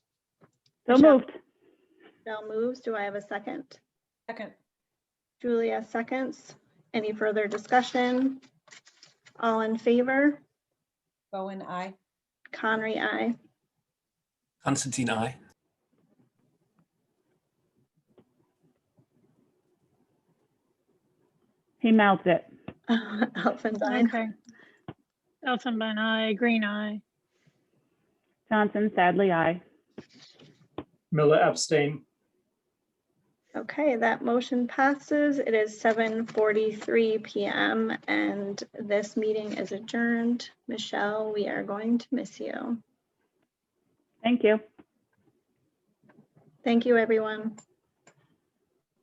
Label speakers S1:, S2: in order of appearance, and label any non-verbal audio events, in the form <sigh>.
S1: So moved.
S2: Michelle moves. Do I have a second?
S3: Second.
S2: Julia seconds. Any further discussion? All in favor?
S3: Bowen, I.
S2: Conry, <laughs> I.
S4: Constantine, I.
S1: He mouths it.
S2: Elfendine,
S5: Okay. Elfenbein eye, green eye.
S1: Johnson, sadly, aye.
S6: Miller abstain.
S2: Okay, that motion passes. It is 7:43 PM and this meeting is adjourned. Michelle, we are going to miss you.
S1: Thank you.
S2: Thank you, everyone.